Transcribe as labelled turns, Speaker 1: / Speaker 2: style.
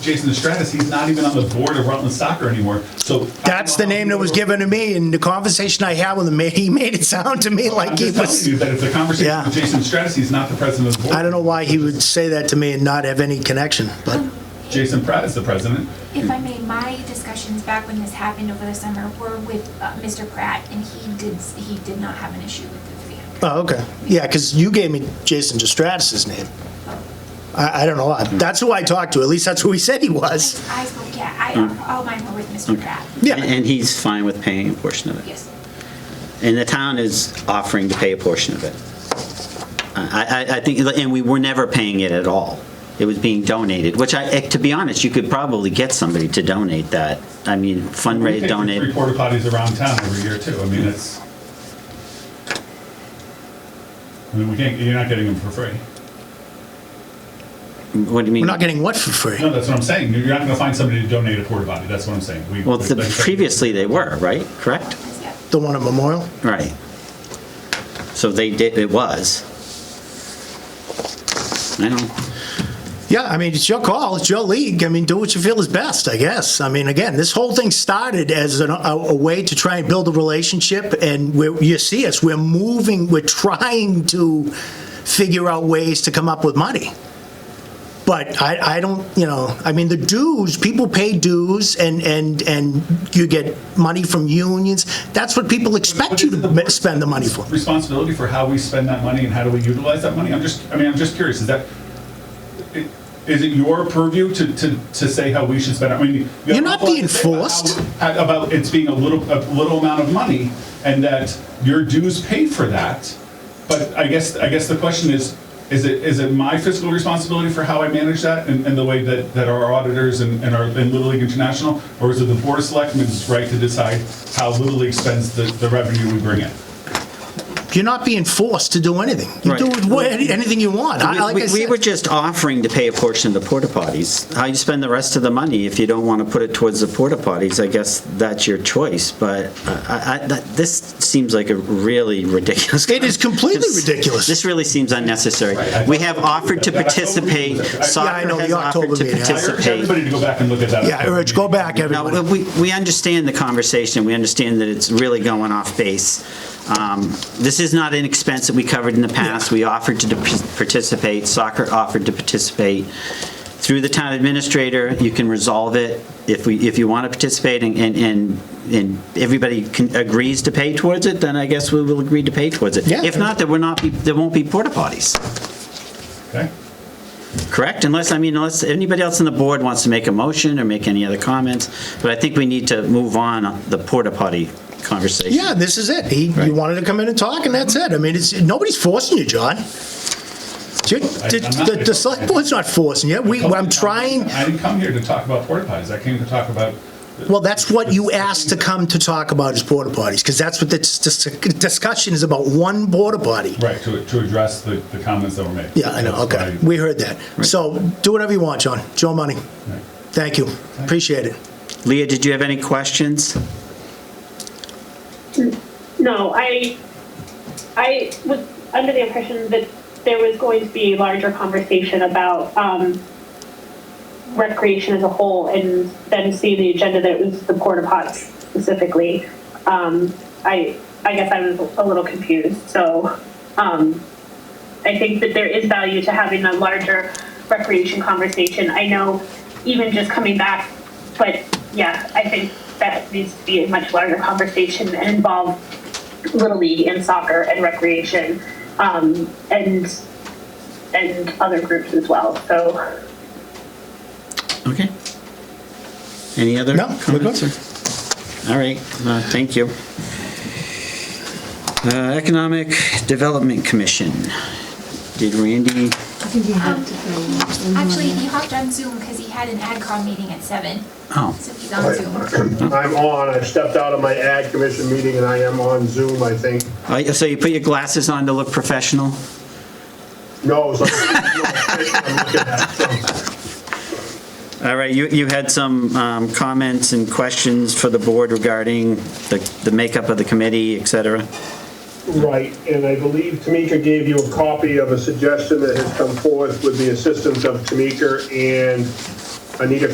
Speaker 1: Jason Estratus, he's not even on the board of Rutland Soccer anymore, so.
Speaker 2: That's the name that was given to me, and the conversation I had with him, he made it sound to me
Speaker 1: I'm
Speaker 2: like he
Speaker 1: just
Speaker 2: was,
Speaker 1: telling you that if the conversation
Speaker 2: Yeah.
Speaker 1: with Jason Estratus, he's not the president of the board.
Speaker 2: I don't know why he would say that to me and not have any connection, but
Speaker 1: Jason Pratt is the president.
Speaker 3: If I may, my discussions back when this happened over the summer were with uh, Mr. Pratt, and he did, he did not have an issue with the 300.
Speaker 2: Oh, okay. Yeah, because you gave me Jason Distratus's name. I, I don't know. why. That's who I talked to. At least that's who he said he was.
Speaker 3: I spoke, yeah, I, all mine were with Mr. Pratt.
Speaker 2: Yeah.
Speaker 4: And he's fine with paying a portion of it.
Speaker 3: Yes.
Speaker 4: And the town is offering to pay a portion of it. I, I, I think, and we were never paying it at all. It was being donated, which I, eh, to be honest, you could probably get somebody to donate that. I mean,
Speaker 1: We pay
Speaker 4: fundraise,
Speaker 1: for Three
Speaker 4: donate.
Speaker 1: porta potties around town every year too, I mean, it's. I mean, we can't, you're not getting them for free.
Speaker 4: What do you
Speaker 2: We're
Speaker 4: mean?
Speaker 2: not getting what for free?
Speaker 1: No, that's what I'm saying, you're not gonna find somebody to donate a porta potty, that's what I'm saying. We-
Speaker 4: Well, the-
Speaker 1: like-
Speaker 4: previously they were, right? Correct?
Speaker 3: Yep.
Speaker 2: The one at Memorial?
Speaker 4: Right. So they did, it was. I don't,
Speaker 2: Yeah, I mean, it's your call. It's your league. I mean, do what you feel is best, I guess. I mean, again, this whole thing started as an, a, a way to try and build a relationship, and we're, you see us, we're moving, we're trying to figure out ways to come up with money. But I, I don't, you know, I mean, the dues, people pay dues, and, and, and you get money from unions. That's what people expect you to ma- spend the money for.
Speaker 1: responsibility for how we spend that money and how do we utilize that money? I'm just, I mean, I'm just curious, is that, i- is it your purview to, to, to say how we should spend it? I mean. you have
Speaker 2: You're not
Speaker 1: a lot to
Speaker 2: being
Speaker 1: say about
Speaker 2: forced.
Speaker 1: how- how- About it's being a little, a little amount of money and that your dues pay for that. But I guess, I guess the question is, is it, is it my fiscal responsibility for how I manage that and, and the way that, that our auditors and, and our, and Little League International? Or is it the Board of Selectmen's right to decide how Little League spends the, the revenue we bring in?
Speaker 2: You're not being forced to do anything. You
Speaker 4: Right.
Speaker 2: do wha- anything you want. I- like I
Speaker 4: We- We
Speaker 2: said-
Speaker 4: were just offering to pay a portion of the porta potties. How you spend the rest of the money, if you don't want to put it towards the porta potties, I guess that's your choice, but I, I, that- this seems like a really ridiculous.
Speaker 2: It is completely
Speaker 4: This-
Speaker 2: ridiculous.
Speaker 4: This really seems unnecessary.
Speaker 1: I-
Speaker 4: We have offered to
Speaker 1: That- that's what we-
Speaker 4: participate,
Speaker 1: Yeah, I know,
Speaker 4: soccer has
Speaker 2: the
Speaker 4: offered
Speaker 2: October
Speaker 4: to
Speaker 2: meeting. I-
Speaker 1: I urge
Speaker 4: participate.
Speaker 1: everybody to go back and look at that.
Speaker 2: Yeah, Rich, go back, everybody.
Speaker 4: No, we, we understand the conversation, we understand that it's really going off base. Um, This is not an expense that we covered in the past, we offered to participate, soccer offered to participate. Through the town administrator, you can resolve it if we, if you want to participate and, and- and, and everybody can- agrees to pay towards it, then I guess we will agree to pay towards it.
Speaker 2: Yeah.
Speaker 4: If not, there will not be, there won't be porta potties.
Speaker 1: Okay.
Speaker 4: Correct, unless, I mean, unless anybody else on the board wants to make a motion or make any other comments, but I think we need to move on the porta potty conversation.
Speaker 2: Yeah, this is it. He, you wanted to come in and talk, and that's it. I mean, it's, nobody's forcing you, John. It's your-
Speaker 1: I'm not-
Speaker 2: The, the, the select board's not forcing you. We, I'm trying,
Speaker 1: I didn't come here to talk about porta potties. I came to talk about.
Speaker 2: well, that's what you asked to come to talk about is porta potties, because that's what this, this discussion is about, one porta potty.
Speaker 1: Right, to, to address the, the comments that were made.
Speaker 2: Yeah, I know,
Speaker 1: That's
Speaker 2: okay.
Speaker 1: why-
Speaker 2: We heard that. So do whatever you want, John. Joe Money.
Speaker 1: Right.
Speaker 2: Thank you. Appreciate it.
Speaker 4: Leah, did you have any questions?
Speaker 5: No, I, I was under the impression that there was going to be a larger conversation about um, recreation as a whole, and then seeing the agenda that it was the porta potties specifically. Um, I, I guess I was a little confused. So, um, I think that there is value to having a larger recreation conversation. I know, even just coming back, but yeah, I think that needs to be a much larger conversation and involve little league and soccer and recreation, um, and and other groups as well. So.
Speaker 4: Okay. Any other
Speaker 2: No, we're good.
Speaker 4: comments? or- All right, uh, thank you. Uh, Economic Development Commission. Did Randy,
Speaker 6: I think you
Speaker 3: Um,
Speaker 6: have to fill in.
Speaker 3: Actually, he hopped on Zoom because he had an AdCom meeting at seven,
Speaker 4: oh,
Speaker 3: so he's on Zoom.
Speaker 7: I'm on, I've stepped out of my ad commission meeting and I am on Zoom, I think.
Speaker 4: I- so you put your glasses on to look professional?
Speaker 7: No, it was like, I'm looking at some-
Speaker 4: All right, you, you had some um, comments and questions for the board regarding the, the makeup of the committee, et cetera?
Speaker 7: Right, and I believe Tamika gave you a copy of a suggestion that has come forth with the assistance of Tamika and Anita